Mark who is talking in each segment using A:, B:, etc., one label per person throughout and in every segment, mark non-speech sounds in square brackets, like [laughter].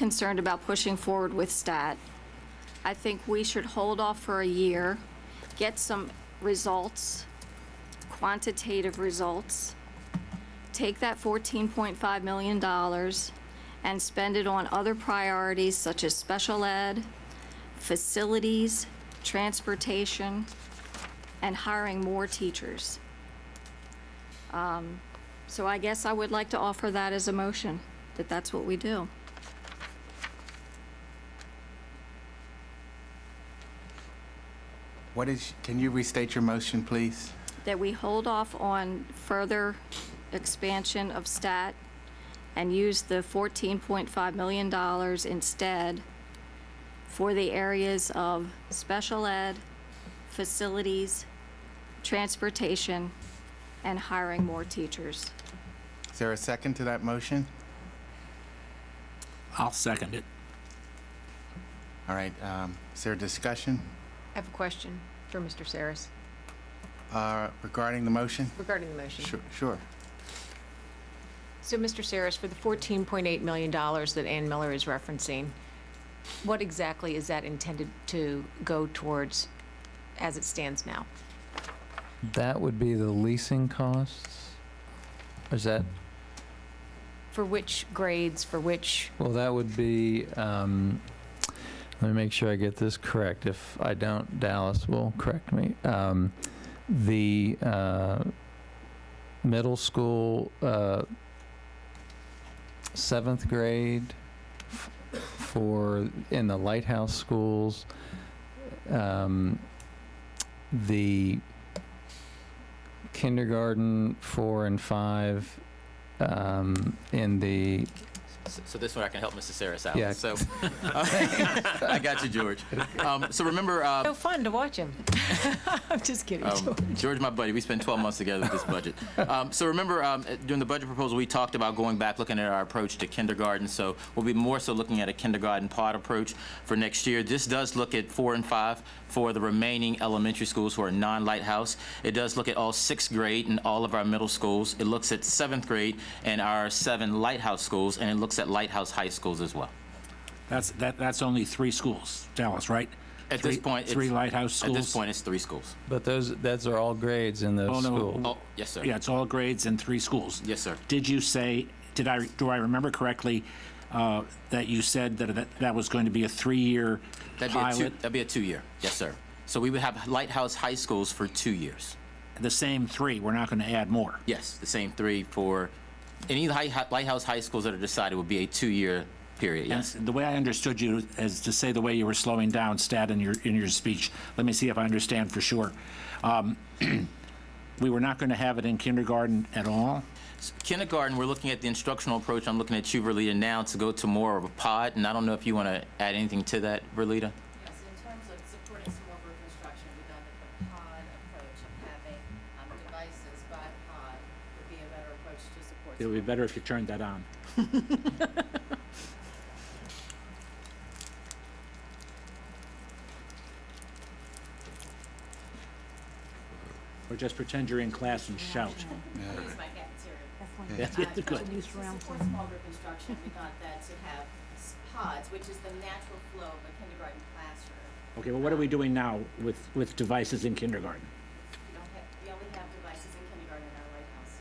A: concerned about pushing forward with STAT. I think we should hold off for a year, get some results, quantitative results, take that $14.5 million and spend it on other priorities such as special ed, facilities, transportation, and hiring more teachers. Um, So I guess I would like to offer that as a motion, that that's what we do.
B: What is, can you restate your motion, please?
A: that we hold off on further expansion of STAT and use the $14.5 million instead for the areas of special ed, facilities, transportation, and hiring more teachers.
B: Is there a second to that motion?
C: I'll second it.
B: All right, um, is there a discussion
D: I have a question for Mr. Saris
B: uh, regarding the motion?
D: regarding the motion.
B: Sure- Sure.
D: So, Mr. Saris, for the $14.8 million that Ann Miller is referencing, what exactly is that intended to go towards as it stands now?
E: That would be the leasing costs? Is that,
D: For which grades, for which,
E: well, that would be, um, let me make sure I get this correct. If I don't, Dallas will correct me. Um, the, uh, middle school, uh, seventh grade f- for, in the lighthouse schools, um, the kindergarten four and five, um, in the
F: So- So this one I can help Mr. Saris out.
E: Yeah.
F: So [laughs] I got you, George. Um, so remember, uh,
D: so fun to watch him. [laughs] I'm just kidding.
F: um, George, my buddy, we spent 12 months together with this budget. Um, so remember, um, during the budget proposal, we talked about going back, looking at our approach to kindergarten. So we'll be more so looking at a kindergarten pod approach for next year. This does look at four and five for the remaining elementary schools who are non-lighthouse. It does look at all sixth grade and all of our middle schools. It looks at seventh grade and our seven lighthouse schools, and it looks at lighthouse high schools as well.
C: That's, that, that's only three schools, Dallas, right?
F: At
C: Three-
F: this point,
C: Three
F: it's-
C: lighthouse schools?
F: At this point, it's three schools.
E: But those, those are all grades in
C: Oh,
E: those
C: no.
E: schools.
F: Oh, yes, sir.
C: Yeah, it's all grades and three schools.
F: Yes, sir.
C: Did you say, did I, do I remember correctly, uh, that you said that, that that was going to be a three-year
F: That'd be, a two,
C: pilot?
F: that'd be a two-year. Yes, sir. So we would have Lighthouse High Schools for two years.
C: The same three, we're not going to add more?
F: Yes, the same three for any high, Lighthouse High Schools that are decided would be a two-year period.
C: And
F: Yes.
C: the way I understood you is to say the way you were slowing down, Stat, in your, in your speech. Let me see if I understand for sure. Um, [clears throat] We were not going to have it in kindergarten at all?
F: Kindergarten, we're looking at the instructional approach. I'm looking at you, Verlita, now to go to more of a pod, and I don't know if you want to add anything to that, Verlita.
G: Yes, in terms of supporting small group instruction, we thought that the pod approach of having um, devices by pod would be a better approach to support.
C: It would be better if you turned that on. Or just pretend you're in class and shout.
G: It's my cafeteria.
C: That's
G: Uh,
C: good.
G: To support small group instruction, we thought that to have s- pods, which is the natural flow of a kindergarten classroom.
C: Okay, well, what are we doing now with, with devices in kindergarten?
G: We don't have, we only have devices in kindergarten in our lighthouse.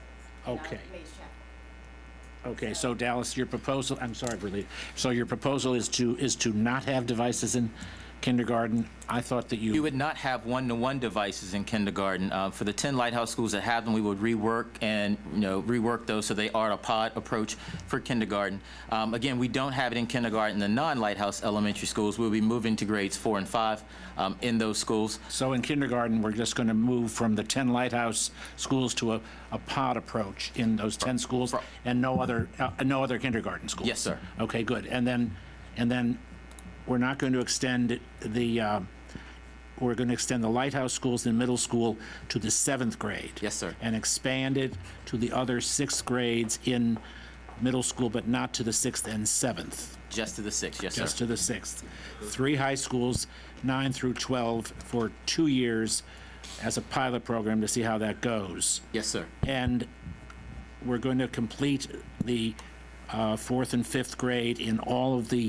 C: Okay.
G: In our Mays Chapel.
C: Okay, so Dallas, your proposal, I'm sorry, Verlita, so your proposal is to, is to not have devices in kindergarten? I thought that
F: We would not have one-to-one devices in kindergarten. Uh, For the 10 Lighthouse schools that have them, we would rework and, you know, rework those so they are a pod approach for kindergarten. Um, Again, we don't have it in kindergarten, the non-Lighthouse elementary schools. We'll be moving to grades four and five um, in those schools.
C: So in kindergarten, we're just going to move from the 10 lighthouse schools to a, a pod approach in those 10 schools and no other, uh, no other kindergarten schools?
F: Yes, sir.
C: Okay, good. And then, and then we're not going to extend the, uh, we're going to extend the lighthouse schools in middle school to the seventh grade?
F: Yes, sir.
C: And expand it to the other sixth grades in middle school, but not to the sixth and seventh?
F: Just to the six, yes,
C: just
F: sir.
C: to the sixth. Three high schools, nine through 12, for two years as a pilot program to see how that goes.
F: Yes, sir.
C: And we're going to complete the uh, fourth and fifth grade in all of the